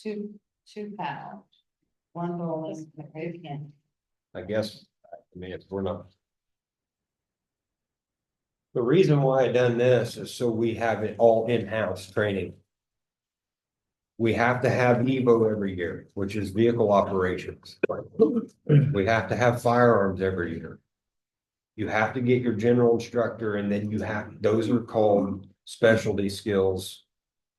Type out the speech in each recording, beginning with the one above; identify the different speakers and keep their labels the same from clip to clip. Speaker 1: two, two pound. One bowling, a great hand.
Speaker 2: I guess, I mean, if we're not. The reason why I done this is so we have it all in-house training. We have to have Evo every year, which is vehicle operations. We have to have firearms every year. You have to get your general instructor and then you have, those are called specialty skills.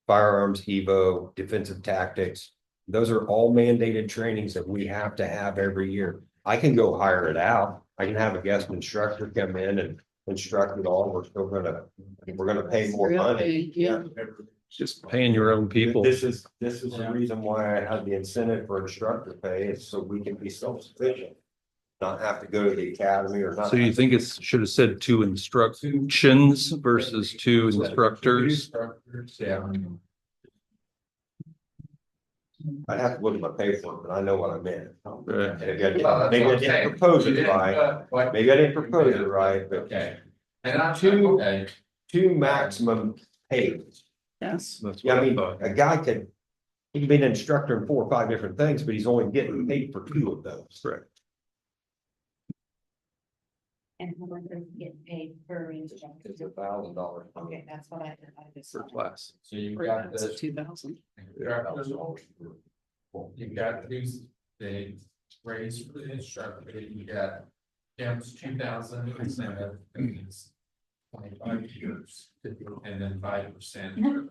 Speaker 2: Firearms, Evo, defensive tactics. Those are all mandated trainings that we have to have every year. I can go hire it out. I can have a guest instructor come in and instruct it all. We're still gonna, we're gonna pay more money.
Speaker 1: Yeah,
Speaker 3: Just paying your own people.
Speaker 2: This is, this is the reason why I have the incentive for instructor pay is so we can be self-sufficient. Not have to go to the academy or not.
Speaker 3: So you think it's, should have said two instructions versus two instructors?
Speaker 2: Instructors, yeah. I'd have to look at my paperwork, but I know what I meant.
Speaker 3: Right.
Speaker 2: And again,
Speaker 4: Well, that's
Speaker 2: Maybe I
Speaker 4: what I'm
Speaker 2: didn't
Speaker 4: saying.
Speaker 2: propose
Speaker 4: You
Speaker 2: it
Speaker 4: didn't,
Speaker 2: right,
Speaker 4: uh, what-
Speaker 2: maybe I didn't propose it right, but
Speaker 4: Okay. And I'm
Speaker 2: Two-
Speaker 4: two, okay,
Speaker 2: two maximum pays.
Speaker 1: yes.
Speaker 3: That's
Speaker 2: Yeah,
Speaker 3: what
Speaker 2: I
Speaker 3: I
Speaker 2: mean,
Speaker 3: thought.
Speaker 2: a guy could, he can be an instructor in four or five different things, but he's only getting paid for two of those.
Speaker 3: Correct.
Speaker 1: And how much does it get paid per instructor?
Speaker 2: It's a thousand dollars.
Speaker 1: Okay, that's what I did. I just.
Speaker 3: For class.
Speaker 4: so you've got this.
Speaker 1: Two thousand.
Speaker 4: You've got these, the raise for the instructor, you got. Jim's two thousand incentive, and it's twenty-five years, and then five percent.
Speaker 1: Can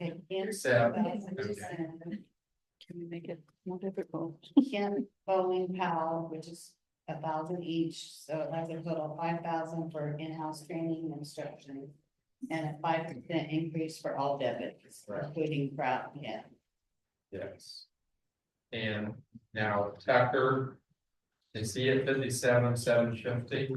Speaker 1: we
Speaker 4: Except-
Speaker 1: make it more difficult? Ken Bowling Powell, which is a thousand each, so it has a total of five thousand for in-house training and instruction. And a five percent increase for all debits,
Speaker 4: Right.
Speaker 1: including crowd, yeah.
Speaker 4: Yes. And now Tucker. Is he at fifty-seven, seven fifty?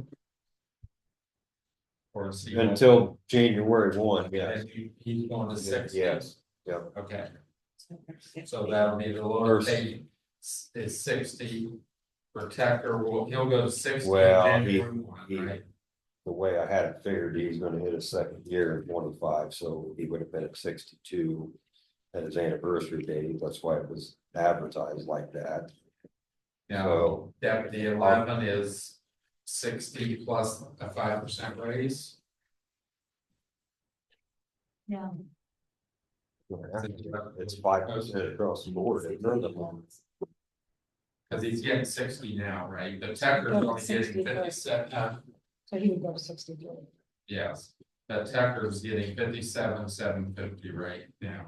Speaker 4: Or is he?
Speaker 2: Until January one, yes.
Speaker 4: And he- He's going to six.
Speaker 2: Yes,
Speaker 4: Okay, so
Speaker 1: So
Speaker 4: that'll be the lower pay is sixty. For Tucker, well, he'll go to sixty.
Speaker 2: Well, he-
Speaker 4: January one,
Speaker 2: he-
Speaker 4: right?
Speaker 2: the way I had it figured, he's gonna hit his second year in twenty-five, so he would have been at sixty-two. At his anniversary date, that's why it was advertised like that,
Speaker 4: Now,
Speaker 2: so
Speaker 4: deputy eleven is sixty plus a five percent raise.
Speaker 1: No.
Speaker 2: it's five percent across the board. It's none of them.
Speaker 4: Cause he's getting sixty now, right? The Tucker's only getting
Speaker 1: 60 first.
Speaker 4: fifty-seven, uh,
Speaker 1: So he would go to sixty-two.
Speaker 4: yes. The Tucker's getting fifty-seven, seven fifty right now.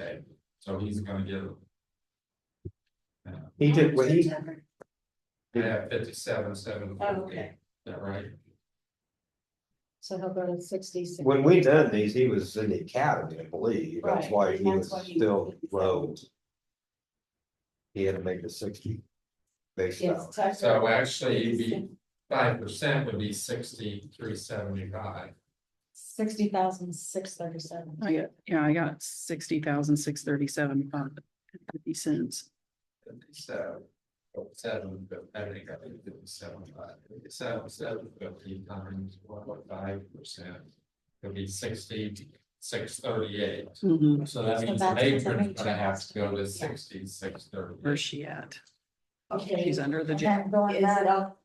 Speaker 4: Okay, so he's gonna get.
Speaker 2: He did, when he,
Speaker 4: Yeah, fifty-seven, seven
Speaker 1: Oh,
Speaker 4: fifty, is
Speaker 1: okay.
Speaker 4: that right?
Speaker 1: So he'll go to sixty-six.
Speaker 2: when we done these, he was in the academy, I believe, that's
Speaker 1: Right,
Speaker 2: why he
Speaker 1: and that's
Speaker 2: was
Speaker 1: why he-
Speaker 2: still low. He had to make the sixty. Based
Speaker 1: Yes,
Speaker 2: out,
Speaker 1: Tucker.
Speaker 4: So actually, you'd be five percent would be sixty-three, seventy-five.
Speaker 1: Sixty thousand, six thirty-seven.
Speaker 5: I got, yeah, I got sixty thousand, six thirty-seven, fifty cents.
Speaker 4: So. oh, Seven, I think I think it was seven, five, seven, seven fifty times one point five percent. It'd be sixty, six thirty-eight.
Speaker 5: Mhm.
Speaker 4: So that
Speaker 1: So
Speaker 4: means the
Speaker 1: that's what
Speaker 4: matron's
Speaker 1: the
Speaker 4: gonna have to go to
Speaker 1: matron-
Speaker 4: sixty, six
Speaker 5: Where's
Speaker 4: thirty.
Speaker 5: she at?
Speaker 1: Okay.
Speaker 5: She's under the,
Speaker 1: And
Speaker 5: ja-
Speaker 1: then going back up.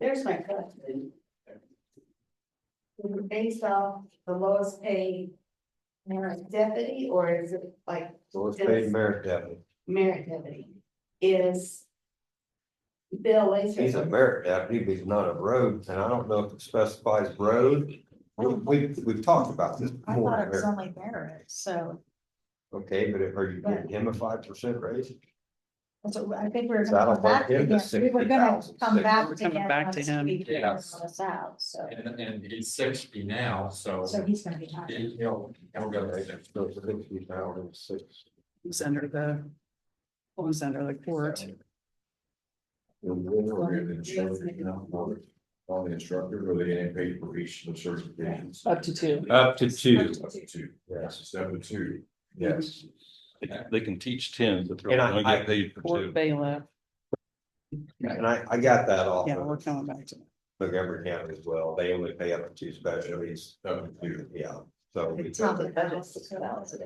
Speaker 1: There's my question. Is it Based off the lowest paid merit deputy, or is it like
Speaker 2: so let's pay merit deputy,
Speaker 1: merit deputy? Is Bill Lathir?
Speaker 2: he's a merit deputy, but he's not a road, and I don't know if it specifies road. We, we've, we've talked about this
Speaker 6: I thought it was
Speaker 2: before,
Speaker 6: only merit, so,
Speaker 2: okay, but are you giving him a five percent raise?
Speaker 6: so I think we we're.
Speaker 2: That'll
Speaker 6: gonna come back
Speaker 2: work in the
Speaker 6: to him. We were gonna
Speaker 2: 60,000,
Speaker 6: come back
Speaker 5: We're
Speaker 6: to
Speaker 5: coming
Speaker 6: him.
Speaker 5: back to
Speaker 6: once
Speaker 5: him.
Speaker 6: we figure
Speaker 4: Yes.
Speaker 6: this out, so,
Speaker 4: And, and he's sixty now, so
Speaker 6: so he's gonna be high.
Speaker 4: he- he'll, he'll go to 60.
Speaker 2: So it's 60,006.
Speaker 5: was under the, was under the court.
Speaker 7: And when we're in the instructor, you know, we're on the instructor, or they getting paid for each of the certifications?
Speaker 6: Oh,
Speaker 5: Up to two.
Speaker 3: Up to two.
Speaker 7: Up to two,
Speaker 2: Yes,
Speaker 7: that's a step of two.
Speaker 2: yes.
Speaker 3: They- They can teach ten, but they're
Speaker 2: And I-
Speaker 3: only
Speaker 2: I-
Speaker 3: get paid for
Speaker 5: Court
Speaker 3: two.
Speaker 5: bailiff.
Speaker 2: And I, I got that off
Speaker 5: Yeah, we're
Speaker 2: of
Speaker 5: coming back to.
Speaker 2: Montgomery County as well. They only pay up to two specialties.
Speaker 7: Up to two.
Speaker 2: Yeah, so. we-
Speaker 6: It's not the best, so that was a